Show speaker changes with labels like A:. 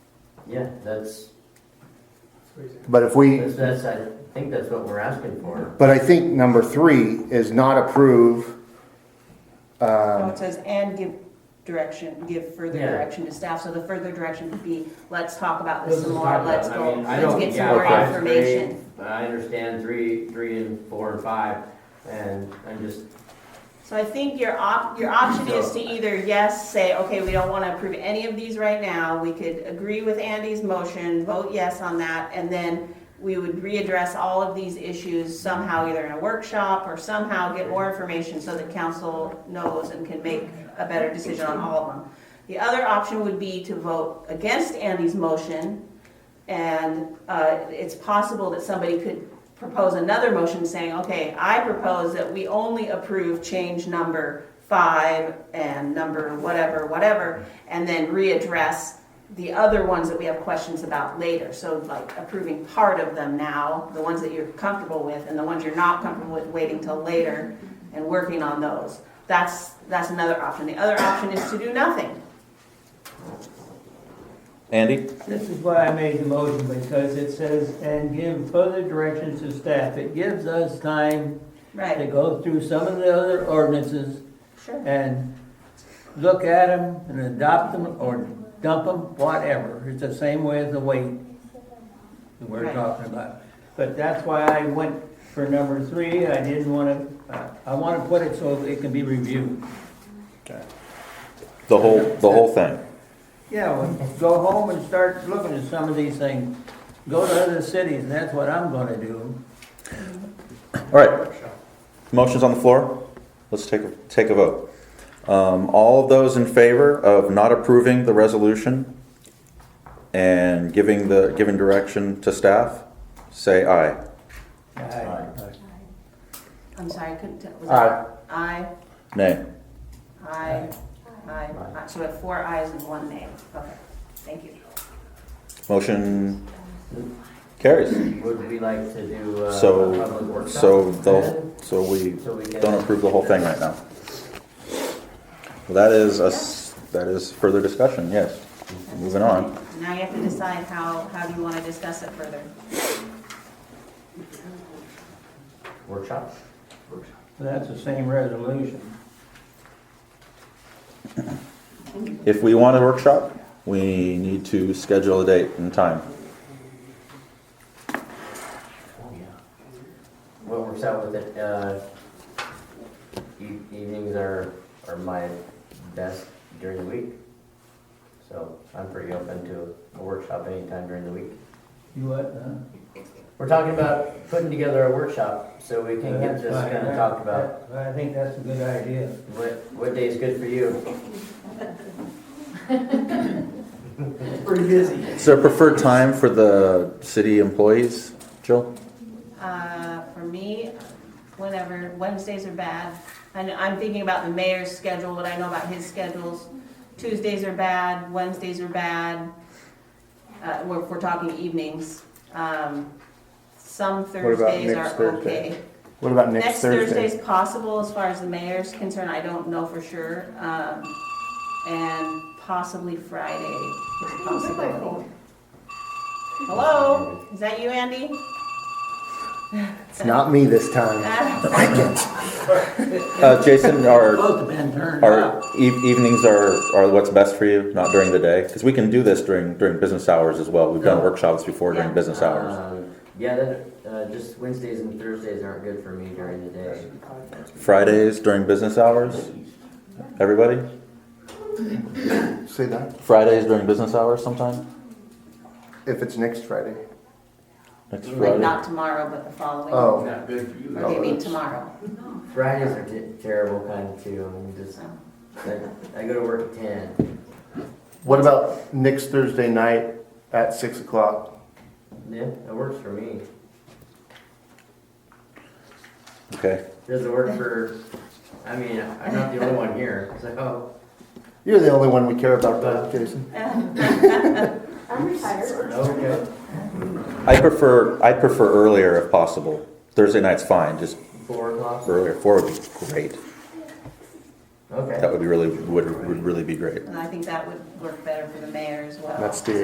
A: Yeah, that's,
B: But if we,
A: that's, that's, I think that's what we're asking for.
B: but I think number three is not approve,
C: No,
B: um,
C: it says, and give direction, give further
A: Yeah.
C: direction to staff, so the further direction would be, let's talk about this
D: Let's
C: Uh, some
D: just
C: more,
D: talk about
C: let's
D: it. I
C: go,
D: mean, I
C: let's
D: don't-
C: get some
A: yeah,
C: more
A: five's
C: information.
A: great, But I understand three, three and four and five, and I'm just,
C: So I think your op, your option is to either, yes, say, okay, we don't wanna approve any of these right now, we could agree with Andy's motion, vote yes on that, and then we would readdress all of these issues somehow, either in a workshop or somehow get more information so that council knows and can make a better decision on all of them. The other option would be to vote against Andy's motion, and, uh, it's possible that somebody could propose another motion saying, okay, I propose that we only approve change number five and number whatever, whatever, and then readdress the other ones that we have questions about later. So like approving part of them now, the ones that you're comfortable with, and the ones you're not comfortable with, waiting till later and working on those. That's, that's another option. The other option is to do nothing.
E: Andy?
D: This is why I made the motion, because it says, and give further directions to staff. It gives us time to
C: Right,
D: go through some of the other ordinances
C: sure.
D: and look at them and adopt them or dump them, whatever. It's the same way as the weight that we're
C: Right.
D: talking about. But that's why I went for number three. I didn't want to, I want to put it so it can be reviewed.
E: The whole, the whole thing.
D: Yeah, well, go home and start looking at some of these things. Go to other cities, and that's what I'm gonna do.
E: All right. Motion's on the floor. Let's take, a take a vote. Um, all of those in favor of not approving the resolution and giving the, giving direction to staff, say aye.
D: I-
C: I'm sorry, I couldn't tell. Was
B: Aye.
C: that Aye.
E: Nay.
C: Aye. Aye. Aye. So we have four ayes and one nay. Okay, thank you.
E: Motion carries.
A: would we like to do uh, a public
E: So,
A: workshop?
E: so the,
A: then?
E: so we
A: So we can-
E: don't approve the whole thing right now. Well, that is us, that is further discussion, yes. Moving on.
C: Now you have to decide how, how do you want to discuss it further?
A: Workshop?
D: That's the same resolution.
E: If we want a workshop, we need to schedule a date and time.
A: oh, What works out with it, uh, e- evenings are, are my best during the week. So I'm pretty open to a workshop anytime during the week.
D: You what, huh?
A: We're talking about putting together a workshop so we can get this kind of talked about.
D: I think that's a good idea.
A: What, what day is good for you?
E: Is there a preferred time for the city employees, Jill?
C: Uh, For me, whenever, Wednesdays are bad. And I'm thinking about the mayor's schedule, what I know about his schedules. Tuesdays are bad, Wednesdays are bad. Uh, We're, we're talking evenings. Um, Some
B: about
C: Thursdays
B: next
C: are
B: Thursday?
C: okay.
B: what about next
C: Next
B: Thursday?
C: Thursday's possible as far as the mayor's concerned, I don't know for sure. Um, And possibly Friday is a possibility. Hello, is that you, Andy?
B: It's not me this time.
C: Uh,
E: Uh, Jason, our,
D: Both have been turned
E: our
D: up.
E: eve- evenings are, are what's best for you, not during the day? Because we can do this during, during business hours as well. We've done workshops before during
C: Yeah.
E: business hours.
A: Um, Yeah, that, uh, just Wednesdays and Thursdays aren't good for me during the day.
E: Fridays during business hours? Everybody?
B: Say that,
E: Fridays during business hours sometime?
B: if it's next Friday.
E: Next
C: Like
E: Friday?
C: not tomorrow, but the following.
B: Oh,
C: Or do you mean tomorrow?
A: Fridays are te- terrible kind too, I mean, just, I, I go to work at ten.
B: what about next Thursday night at six o'clock?
A: Yeah, that works for me.
E: Okay.
A: Doesn't work for, I mean, I'm not the only one here, so.
B: You're the only one we care about, that, Jason.
F: I'm retired.
A: Okay.
E: I prefer, I prefer earlier if possible. Thursday night's fine, just
A: Four o'clock?
E: earlier. Four would be great.
A: Okay.
E: That would be really, would, would really be great.
C: And I think that would work better for the mayor as well.
B: That's the